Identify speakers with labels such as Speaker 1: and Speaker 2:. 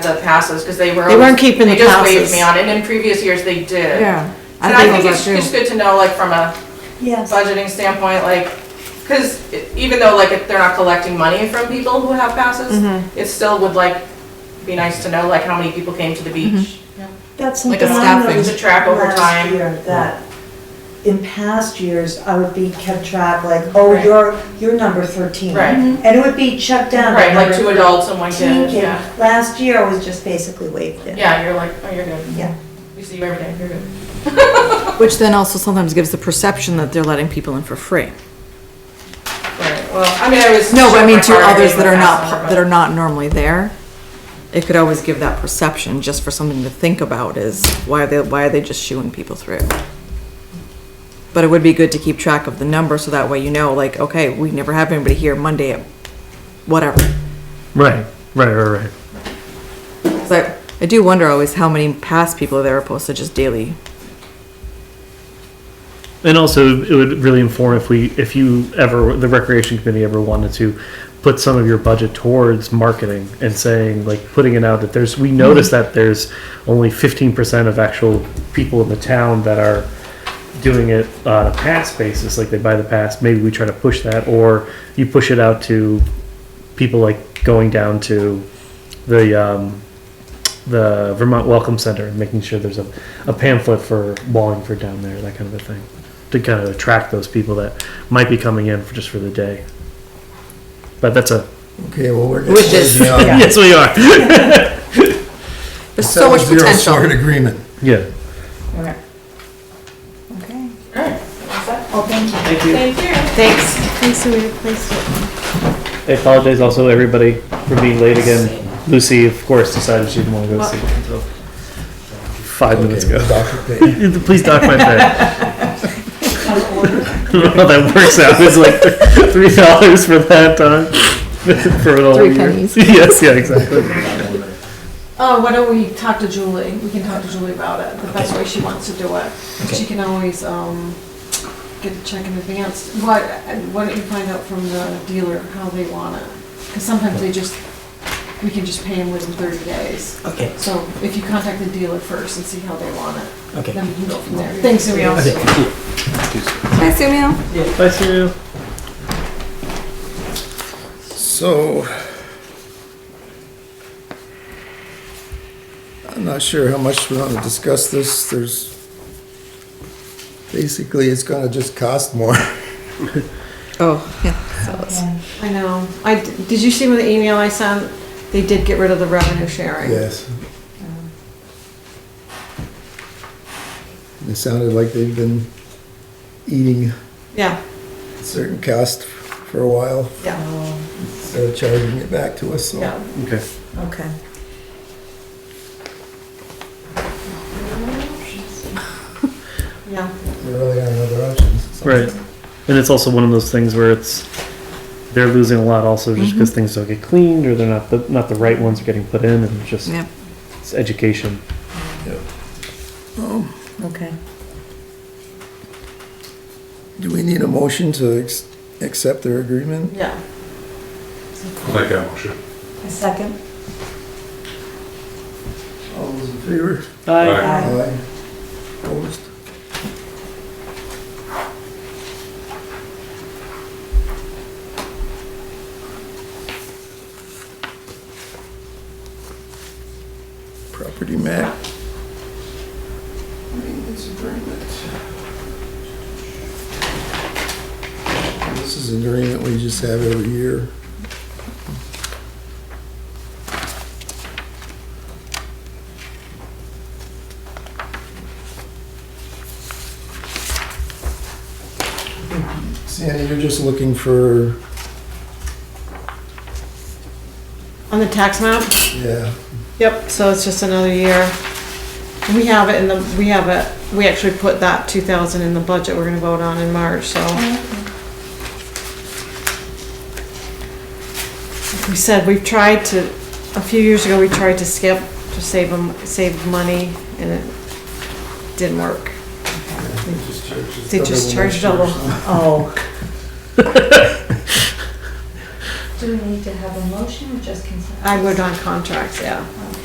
Speaker 1: the passes, because they were.
Speaker 2: They weren't keeping
Speaker 1: they
Speaker 2: the
Speaker 1: just waived
Speaker 2: passes.
Speaker 1: me on it, in previous years they did.
Speaker 2: Yeah.
Speaker 1: And I think it's just good to know, like, from a
Speaker 3: Yes,
Speaker 1: budgeting standpoint, like, because even though, like, if they're not collecting money from people who have passes,
Speaker 2: Mm-hmm.
Speaker 1: it still would, like, be nice to know, like, how many people came to the
Speaker 2: Mm-hmm.
Speaker 1: beach.
Speaker 3: that's
Speaker 4: Like
Speaker 3: something
Speaker 4: a
Speaker 3: I
Speaker 4: staffing.
Speaker 3: noticed
Speaker 1: To track over
Speaker 3: last
Speaker 1: time.
Speaker 3: year, That in past years, I would be kept track, like, oh,
Speaker 1: Right.
Speaker 3: you're, you're number thirteen.
Speaker 1: Right.
Speaker 5: Mm-hmm.
Speaker 1: Mhm.
Speaker 3: And it would be checked down.
Speaker 1: Right, like
Speaker 3: number
Speaker 1: two adults and one
Speaker 3: 13
Speaker 1: kid,
Speaker 3: kid.
Speaker 1: yeah.
Speaker 3: Last year, I was just basically waved in.
Speaker 1: Yeah, you're like, oh, you're good.
Speaker 3: Yeah.
Speaker 1: We see you every day, you're good.
Speaker 2: Which then also sometimes gives the perception that they're letting people in for free.
Speaker 1: Right, well, I mean, I was.
Speaker 2: No, but I mean to
Speaker 1: sure my
Speaker 2: others
Speaker 1: partner
Speaker 2: that are
Speaker 1: gave a
Speaker 2: not,
Speaker 1: pass
Speaker 2: par-
Speaker 1: number,
Speaker 2: that are not normally there. It could always give that perception, just for something to think about is, why are they, why are they just shooing people through? But it would be good to keep track of the number, so that way you know, like, okay, we never have anybody here Monday at whatever.
Speaker 6: Right, right, right, right.
Speaker 2: 'Cause I, I do wonder always how many past people are there opposed to just daily.
Speaker 6: And also, it would really inform if we, if you ever, the recreation committee ever wanted to put some of your budget towards marketing and saying, like, putting it out that there's, we notice that there's only fifteen percent of actual people in the town that are doing it on a pass basis, like they buy the pass. Maybe we try to push that, or you push it out to people like going down to the um, the Vermont Welcome Center and making sure there's a, a pamphlet for Wallingford down there, that kind of a thing, to kind of attract those people that might be coming in for just for the day. But that's a
Speaker 7: Okay, well, we're getting.
Speaker 2: Wishes.
Speaker 7: lazy on
Speaker 6: yes, we are.
Speaker 2: There's so much
Speaker 7: Seven zero Sworn
Speaker 2: potential.
Speaker 7: agreement.
Speaker 6: yeah.
Speaker 1: Okay.
Speaker 3: Okay.
Speaker 1: All right, that's that.
Speaker 3: Well, thank you.
Speaker 6: Thank you.
Speaker 1: Thank you.
Speaker 2: Thanks.
Speaker 6: I apologize also everybody for being late again. Lucy, of course, decided she didn't want to go to sleep until five minutes
Speaker 7: Okay,
Speaker 6: ago.
Speaker 7: Dr. Payton.
Speaker 6: Please dock my pay. Well, that works out. It's like three dollars for that time for an whole
Speaker 2: Three
Speaker 6: year.
Speaker 2: pennies.
Speaker 6: Yes, yeah, exactly.
Speaker 4: Oh, why don't we talk to Julie? We can talk to Julie about it, the best way she wants to do it. She can always, um, get a check in advance. Why, why don't you find out from the dealer how they want it? Because sometimes they just, we can just pay them within thirty days.
Speaker 8: Okay,
Speaker 4: So if you contact the dealer first and see how they want it,
Speaker 8: okay.
Speaker 4: then we can go from there. Thanks, Ariel.
Speaker 2: Hi, Samuel.
Speaker 6: Bye, Sue.
Speaker 7: So. I'm not sure how much we want to discuss this. There's, basically, it's gonna just cost more.
Speaker 2: Oh, yeah. so it's-
Speaker 4: I know. I, d- did you see with the email I sent? They did get rid of the revenue sharing.
Speaker 7: Yes. It sounded like they've been eating
Speaker 4: Yeah,
Speaker 7: certain cost for a while,
Speaker 4: yeah,
Speaker 7: They're charging it back to us, so.
Speaker 4: yeah.
Speaker 6: Okay.
Speaker 3: Okay.
Speaker 4: Yeah,
Speaker 7: There really are other options.
Speaker 6: Right. And it's also one of those things where it's they're losing a lot also just because things don't get cleaned or they're not the not the right ones are getting put in and just
Speaker 2: yeah.
Speaker 6: it's education.
Speaker 3: Okay.
Speaker 7: Do we need a motion to ex- accept their agreement?
Speaker 4: yeah.
Speaker 9: Like that motion.
Speaker 3: A second?
Speaker 7: All those in favor?
Speaker 6: Bye.
Speaker 9: Aye.
Speaker 7: Aye. Opposed? Property map. Maintenance agreement. This is an agreement we just have every year. Sandy, you're just looking for,
Speaker 4: On the tax map?
Speaker 7: yeah,
Speaker 4: Yep, so it's just another year. We have it in the, we have it, we actually put that two thousand in the budget we're gonna vote on in March, so. Like We said, we've tried to, a few years ago, we tried to skip to save them, save money, and it didn't work. They just charged double.
Speaker 3: Oh.
Speaker 5: Do we need to have a motion or just consent?
Speaker 4: I would on contracts, yeah.